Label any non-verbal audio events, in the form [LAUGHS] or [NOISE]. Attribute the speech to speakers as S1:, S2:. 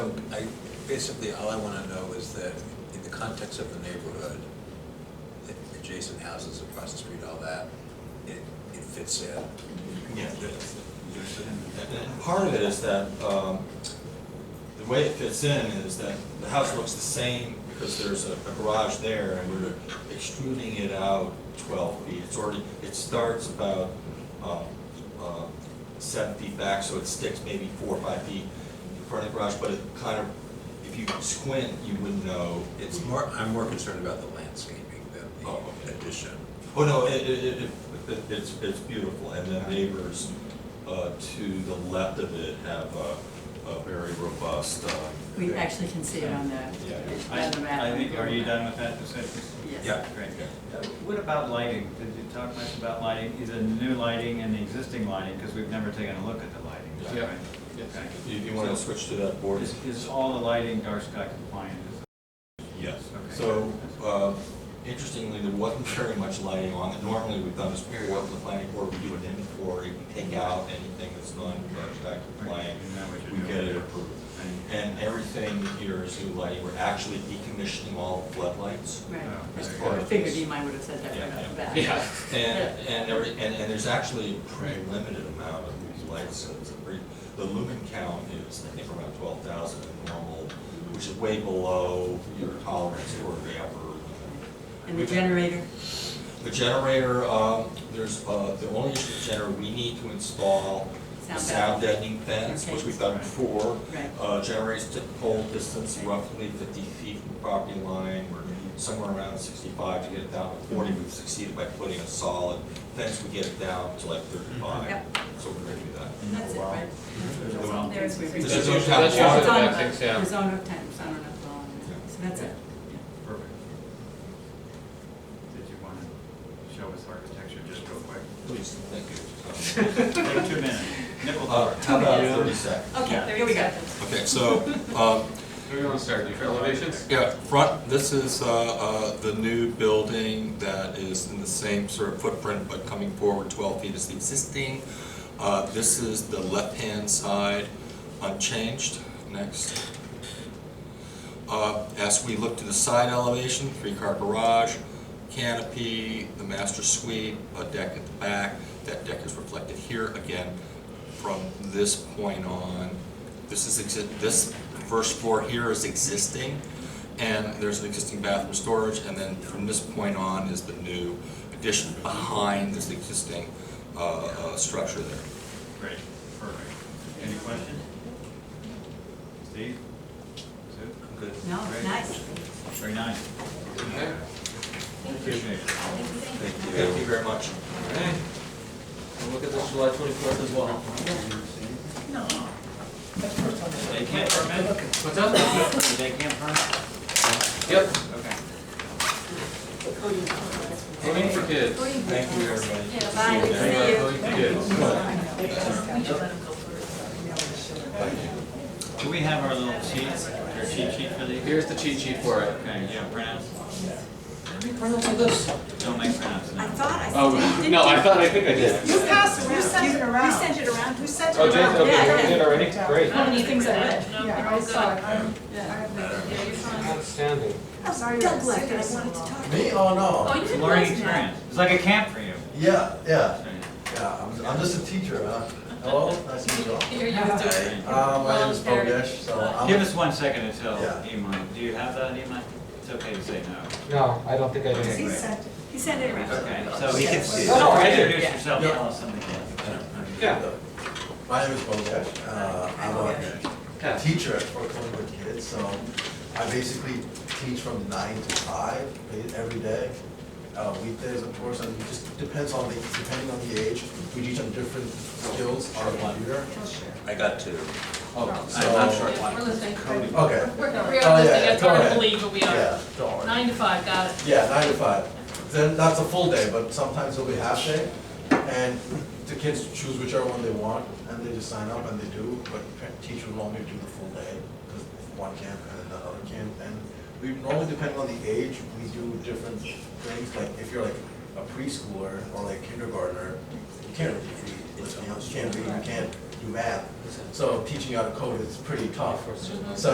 S1: Basically, all I want to know is that in the context of the neighborhood, the adjacent houses across the street, all that, it, it fits in.
S2: Yeah.
S1: There's- there's a-
S2: And Part of it is that, um, the way it fits in is that the house looks the same because there's a a garage there and we're extruding it out twelve feet. It's already, it starts about, um, uh, seven feet back, so it sticks maybe four or five feet in front of the garage, but it kind of, if you squint, you wouldn't know.
S1: It's more, I'm more concerned about the landscaping than
S2: Oh, okay.
S1: the addition.
S2: Oh, no, it, it, it- it, it- it's, it's beautiful, and the neighbors, uh, to the left of it have a, a very robust, uh.
S3: We actually can see it on the,
S2: Yeah.
S4: I,
S3: on the map.
S4: I think, are you done with that discussion?
S3: Yes.
S1: Yeah.
S4: Great. Uh, What about lighting? Did you talk much about lighting, either new lighting and the existing lighting, because we've never taken a look at the lighting, is that
S2: Yeah.
S4: right?
S5: Yes.
S4: Okay.
S2: If you wanna switch to that board,
S4: Is, is all the lighting dark sky compliant? Is-
S2: yes.
S4: Okay.
S2: So, uh, interestingly, there wasn't very much lighting on it. Normally, we've done this period of the planning board, we do an inventory, we take out anything that's non-contract compliant,
S4: Isn't that what you're
S2: we get it
S4: doing?
S2: approved.
S4: And-
S2: And everything here is new lighting, we're actually decommissioning all floodlights.
S3: Right.
S4: As
S2: part
S3: I
S2: of
S3: figured
S2: this.
S3: you might would have said that
S2: Yeah,
S3: right off the
S2: yeah.
S3: bat.
S5: Yeah.
S2: And, and every, and, and there's actually a pretty limited amount of these lights, so it's a pretty, the lumen count is, I think, around twelve thousand in normal, which is way below your tolerance for the upper limit.
S3: And the generator,
S2: The generator, um, there's, uh, the only issue with the generator, we need to install a
S3: Sound
S2: sound deadening fence,
S3: Okay.
S2: which we've done before.
S3: Right.
S2: Uh, generates typical distance
S3: Okay.
S2: roughly fifty feet from the property line, we're somewhere around sixty-five to get it down to forty.
S3: Mm-hmm.
S2: We've succeeded by putting a solid fence, we get it down to like thirty-five,
S3: Mm-hmm. Yep.
S2: so we're gonna do that.
S3: and that's it, right?
S2: There's one.
S3: There's where we-
S2: This
S5: That's
S2: is
S3: It's
S2: on
S5: usually-
S2: top
S5: that's usually
S2: water.
S5: the
S3: on,
S5: back
S3: uh,
S5: things, yeah.
S3: the zone of time, zone of law, so that's it.
S4: Perfect. Did you want to show us architecture just real quick?
S2: Please, thank you.
S4: Take two minutes, nickel
S2: Uh,
S4: door.
S2: how about thirty seconds? uh,
S3: Okay,
S4: Yeah.
S3: there we go.
S6: Okay, so, um,
S5: Where do you want to start, your elevations?
S6: yeah, front, this is uh, uh, the new building that is in the same sort of footprint, but coming forward 12 feet is the existing. Uh, This is the left-hand side unchanged. Next. Uh, As we look to the side elevation, three-car garage, canopy, the master suite, a deck at the back. That deck is reflected here again. From this point on, this is, exi- this first floor here is existing, and there's an existing bathroom storage, and then from this point on is the new addition behind this existing uh, uh, structure there.
S4: Great, perfect. Any questions? Steve? Sue? Good.
S3: No, it's nice.
S4: Very nice. Appreciate it.
S2: Thank you very much.
S5: Okay. We'll look at this July twenty-fourth as well.
S4: They can't permit?
S5: What's up?
S4: They can't permit?
S5: Yep,
S4: Okay.
S5: aiming for kids.
S2: Thank you, everybody.
S3: Bye, good to see you.
S5: Voting for kids.
S4: Do we have our little sheets, our cheat sheet for these?
S5: Here's the cheat sheet for it.
S4: Okay, yeah, printouts.
S5: this?
S4: Don't make printouts
S7: I
S4: now.
S7: thought I
S5: Oh,
S7: sent it.
S5: no, I thought, I think I did.
S7: You passed, you sent it around. You sent it around, who sent it
S5: Oh,
S7: around?
S5: James,
S3: Yeah,
S5: okay,
S3: yeah.
S5: you did already? Great.
S3: How many things I read?
S7: Yeah, I saw it.
S8: Um,
S7: I'm-
S5: Outstanding.
S7: I'm sorry,
S3: Doug
S7: I
S3: left,
S7: sent
S3: and
S7: it
S3: I
S7: so
S3: wanted to
S7: long.
S3: talk.
S8: Me? Oh, no.
S3: you
S4: It's a learning experience. It's like a camp for you.
S8: Yeah, yeah,
S4: Okay.
S8: yeah. I'm, I'm just a teacher, huh? Hello, nice to meet you all.
S7: Here you go.
S3: [LAUGHS]
S8: Uh, my name is Bogdash, so I'm.
S4: Give us one second until
S8: Yeah.
S4: Imai, do you have that, Imai? It's okay to say no.
S5: No, I don't think I
S4: Okay,
S7: He
S4: great.
S7: sent it.
S3: He sent it around.
S4: Okay, so he can
S8: see
S5: it. Oh, I did.
S4: Introduce yourself,
S8: Yeah.
S4: tell us something. else.
S5: Yeah.
S8: My name is Bogdash. Uh, I'm a
S5: Yeah.
S8: teacher at Fort Collingwood Kids, so I basically teach from nine to five ba- every day. Uh, weekdays, of course, and it just depends on the, depending on the age, we teach them different skills on the computer.
S1: I got two.
S7: Oh.
S4: I'm I'm short one.
S9: We're listening.
S4: Cody.
S8: Okay.
S9: We're, we are
S8: Oh, yeah,
S9: listening,
S8: yeah,
S9: it's hard
S8: go
S9: to
S8: ahead.
S9: believe, but we are.
S8: Yeah, don't worry.
S9: Nine to five, got it.
S8: Yeah, nine to five. Then that's a full day, but sometimes it'll be half day. And the kids choose whichever one they want, and they just sign up and they do, but pa- teachers normally do the full day, because one camp and then the other camp. And we normally, depending on the age, we do different things, like if you're like a preschooler or like kindergartner, you can't really read, you know, you can't read, you can't do math. So teaching you how to code is pretty tough. So